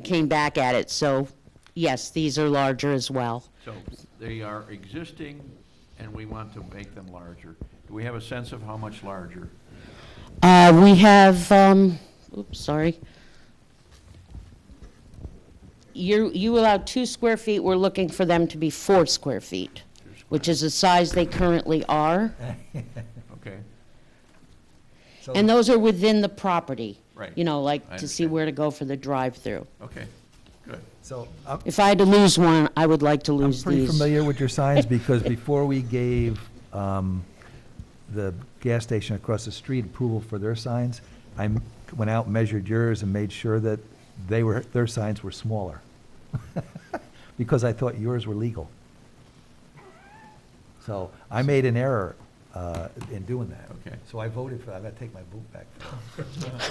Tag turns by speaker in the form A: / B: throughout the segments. A: came back at it, so yes, these are larger as well.
B: So they are existing, and we want to make them larger. Do we have a sense of how much larger?
A: Uh, we have, um, oops, sorry. You, you allow two square feet, we're looking for them to be four square feet, which is the size they currently are.
B: Okay,
C: So-
A: And those are within the property.
B: Right.
A: You know, like
B: I
A: to see
B: understand.
A: where to go for the drive-through.
B: okay, good.
C: So I'm
A: If I had to lose one, I would like to
C: I'm
A: lose
C: pretty
A: these.
C: familiar with your signs because before we gave um, the gas station across the street approval for their signs, I m- went out, measured yours and made sure that they were, their signs were smaller. Because I thought yours were legal. So I made an error uh, in doing that.
B: Okay.
C: So I voted for, that. I gotta take my vote back.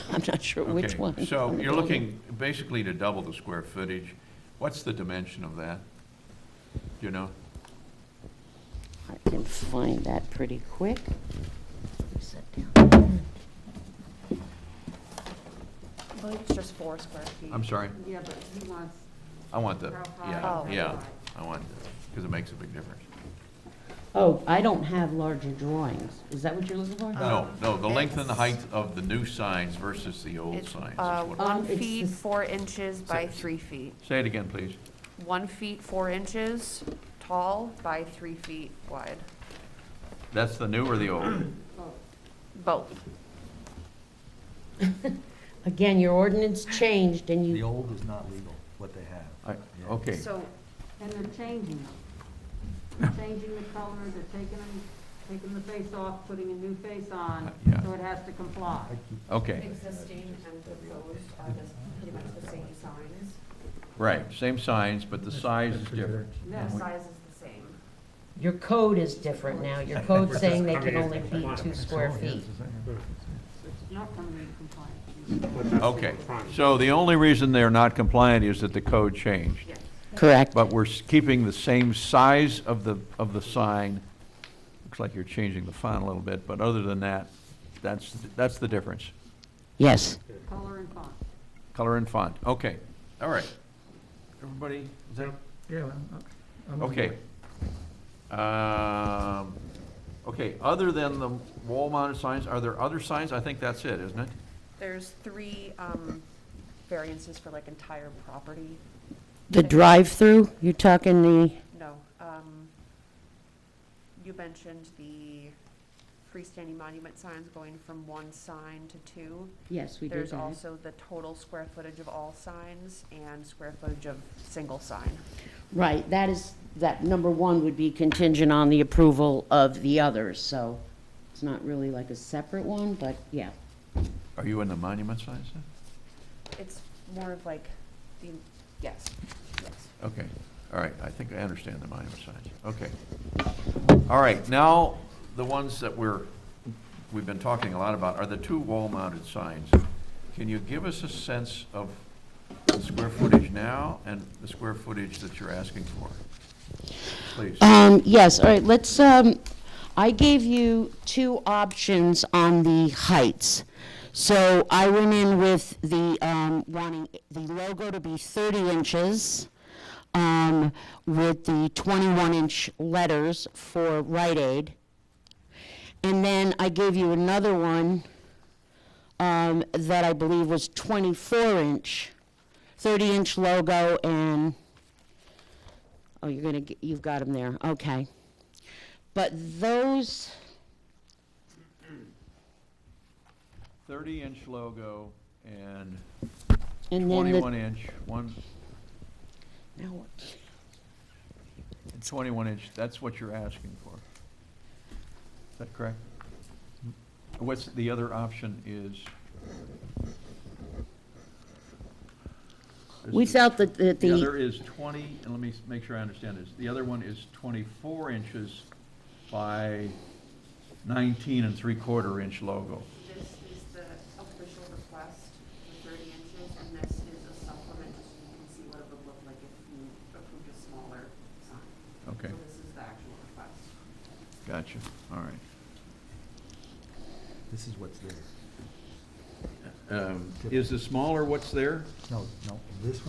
A: I'm not sure which
B: Okay,
A: one.
B: So you're looking basically to double the square footage. What's the dimension of that? Do you know?
A: I can find that pretty quick. Sit down.
D: I believe it's just four square feet.
B: I'm sorry,
E: Yeah, but he wants,
B: I want the,
E: How
B: yeah,
D: high?
B: yeah, I want, because it makes a big difference.
A: Oh, I don't have larger drawings. Is that what you're looking for?
B: No,
D: Um,
B: no, the length and the
D: it's-
B: height of the new signs versus the old
D: It's
B: signs. is
D: uh,
B: what-
A: Um,
D: one
A: it's
D: feet,
A: this-
D: four inches by
B: Six.
D: three feet.
B: Say it again, please.
D: One feet, four inches tall by three feet wide.
B: That's the new or the old?
D: Both.
A: Again, your ordinance changed and
C: The
A: you,
C: old is not legal, what they have.
B: I-
C: Yeah.
B: Okay,
E: so, and they're changing them. They're changing the color, they're taking them, taking the face off, putting a new face on,
B: Yeah.
E: so it has to comply.
B: okay,
F: Existing and proposed are the, pretty much the same signs.
B: right, same signs, but the size is different.
F: The
E: Yes.
F: size is the same.
A: your code is different now. Your code's saying they can only be two square feet.
E: It's not gonna be compliant.
B: Okay, so the only reason they're not compliant is that the code changed.
A: Correct.
B: But we're s- keeping the same size of the, of the sign. Looks like you're changing the font a little bit, but other than that, that's, that's the difference.
A: Yes.
E: Color and font.
B: Color and font, okay, all right. Everybody, is that,
G: Yeah, I'm.
B: okay. Um, Okay, other than the wall-mounted signs, are there other signs? I think that's it, isn't it?
D: There's three um, variances for like entire property.
A: The drive-through, you're talking the,
D: No. um, You mentioned the freestanding monument signs going from one sign to two.
A: yes, we did
D: There's
A: that.
D: also the total square footage of all signs and square footage of single sign.
A: Right, that is, that number one would be contingent on the approval of the others, so it's not really like a separate one, but yeah.
B: Are you in the monument signs? then?
D: It's more of like, the, yes, yes.
B: Okay, all right, I think I understand the monument signs, okay. All right, now, the ones that we're, we've been talking a lot about are the two wall-mounted signs. Can you give us a sense of the square footage now and the square footage that you're asking for? Please,
A: Um, yes, all right, let's, um, I gave you two options on the heights. So I went in with the, um, wanting the logo to be thirty inches, um, with the twenty-one inch letters for Rite Aid. And then I gave you another one, um, that I believe was twenty-four inch, thirty inch logo and Oh, you're gonna, get- you've got them there, okay. But those,
B: thirty-inch logo and
A: and then the.
B: twenty-one inch, one,
A: now what?
B: twenty-one inch, that's what you're asking for. Is that correct? What's, the other option is? This
A: We
B: is-
A: felt that, that
B: The other
A: the,
B: is twenty, and let me s- make sure I understand this, the other one is twenty-four inches by nineteen and three-quarter inch logo.
F: This is the official request for thirty inches, and this is a supplement, so you can see what it would look like if you approved a smaller sign.
B: Okay,
F: So this is the actual request.
B: gotcha, all right.
C: This is what's there.
B: Um, Is the smaller what's there?
C: No, no, this